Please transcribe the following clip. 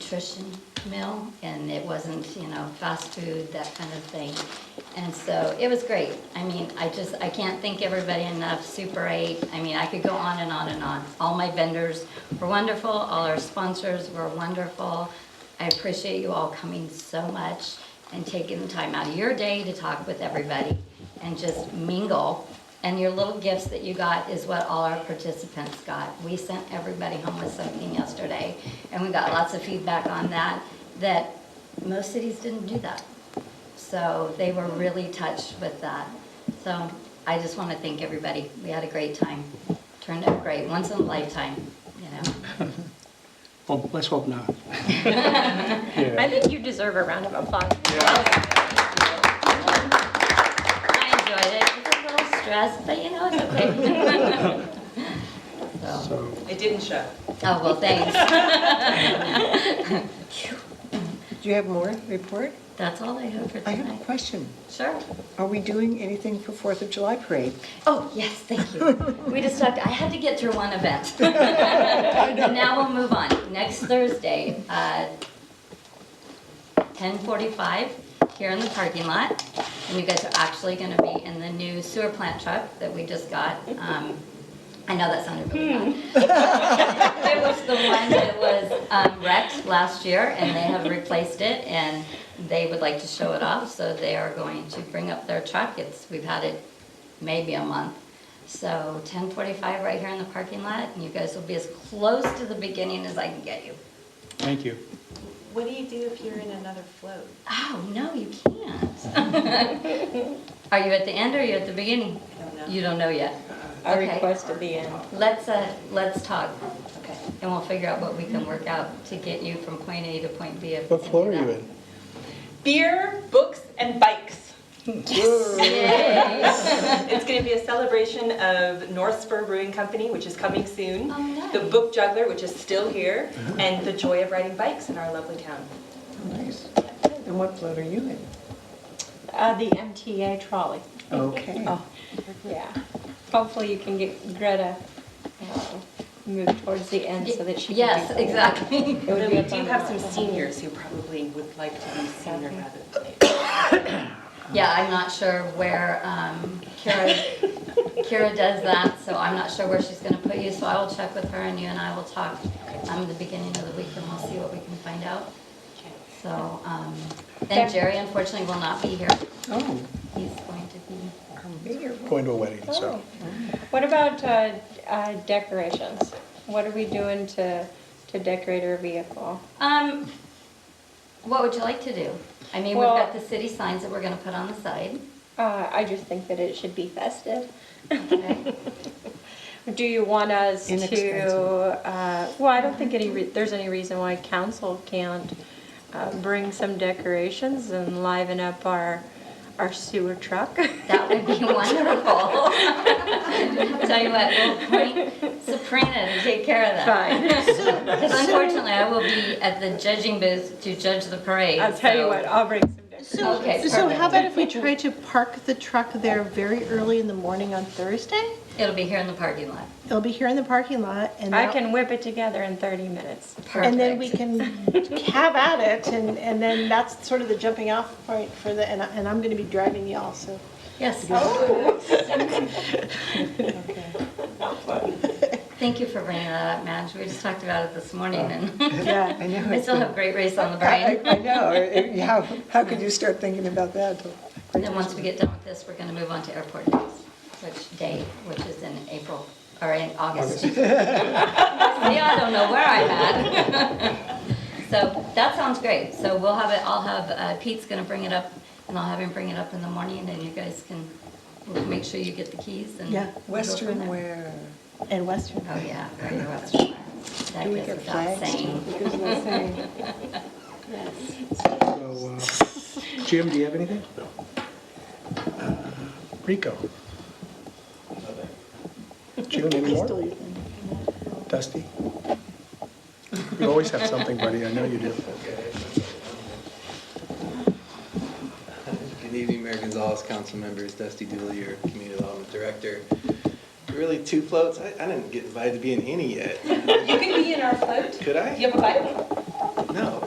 nutrition meal, and it wasn't, you know, fast food, that kind of thing. And so it was great. I mean, I just, I can't thank everybody enough, Super 8. I mean, I could go on and on and on. All my vendors were wonderful, all our sponsors were wonderful. I appreciate you all coming so much and taking the time out of your day to talk with everybody and just mingle. And your little gifts that you got is what all our participants got. We sent everybody home with something yesterday, and we got lots of feedback on that, that most cities didn't do that. So they were really touched with that. So I just want to thank everybody. We had a great time. Turned out great, once in a lifetime, you know? Well, let's hope not. I think you deserve a round of applause. I enjoyed it. It was a little stressed, but you know, it's okay. So, It didn't show. Oh, well, thanks. Do you have more report? That's all I have for I have a tonight. question. Sure. Are we doing anything for Fourth of July parade? Oh, yes, thank you. We just talked, I had to get through one event. And now we'll move on. Next Thursday, uh, 10:45 here in the parking lot. And you guys are actually going to be in the new sewer plant truck that we just got. Um, I know that sounded really bad. It was the one that was um, wrecked last year, and they have replaced it, and they would like to show it off, so they are going to bring up their truck. It's, we've had it maybe a month. So 10:45 right here in the parking lot, and you guys will be as close to the beginning as I can get you. Thank you. What do you do if you're in another float? Oh, no, you can't. Are you at the end or are you at the beginning? I don't know. You don't know yet. I Okay. request to be in. Let's, uh, let's talk, Okay. and we'll figure out what we can work out to get you from point A to point B. if we What can do floor are you that. in? Beer, books, and bikes. Yay. It's going to be a celebration of North Spur Brewing Company, which is coming soon. Oh, nice. The Book Juggler, which is still here, and the joy of riding bikes in our lovely town. Nice. And what float are you in? Uh, the MTA trolley. Okay. Oh, yeah. Hopefully you can get Greta um, moved towards the end so that she can. Yes, do that. exactly. It would Although be we a do fun have one. some seniors who probably would like to be sooner rather than later. Yeah, I'm not sure where um, Kira, Kira does that, so I'm not sure where she's gonna put you, so I will check with her and you and I will talk um, at the beginning of the week and we'll see what we can find out. So, um, and Jerry unfortunately will not be here. Oh, He's going to be, I'm bigger. Going to a wedding, Oh. so. What about uh, uh, decorations? What are we doing to, to decorate our vehicle? um, what would you like to do? I mean, we've Well- got the city signs that we're gonna put on the side. Uh, I just think that it should be festive. Okay. Do you want us to, Inexpensive. uh, well, I don't think any, re- there's any reason why council can't uh, bring some decorations and liven up our, our sewer truck. That would be wonderful. Tell you what, we'll point Sabrina to take care of that. Fine. Because unfortunately, I will be at the judging booth to judge the parade. I'll tell you so- what, I'll bring some decorations. So, Okay, so perfect. how about if we try to park the truck there very early in the morning on Thursday? It'll be here in the parking lot. It'll be here in the parking lot and. I that- can whip it together in 30 minutes. And then we Perfect. can have at it and, and then that's sort of the jumping off point for the, and I- and I'm gonna be driving y'all, so. Yes. Thank you for bringing that up, Madge. We just talked about it this morning and Yeah, I know. I still have great race on the I, brain. I- I know. It- How, how could you start thinking about that? And then once we get done with this, we're going to move on to airport news, which day, which is in April, or in August. See, I don't know where I'm at. So that sounds great. So we'll have it, I'll have, uh, Pete's going to bring it up, and I'll have him bring it up in the morning, and you guys can we'll make sure you get the keys and. Yeah, we'll go from Western there. wear. And Western. Oh, yeah, very Western. That Do we goes get without flags? saying. So, uh, Jim, do you have anything? Uh, Rico. June anymore? Dusty? You always have something, buddy, I know you do. Good evening, Mayor Gonzalez, council members, Dusty Dooley, your community development director. Really, two floats? I, I didn't get invited to be in any yet. You can be in our float. Could I? You have a bike? No,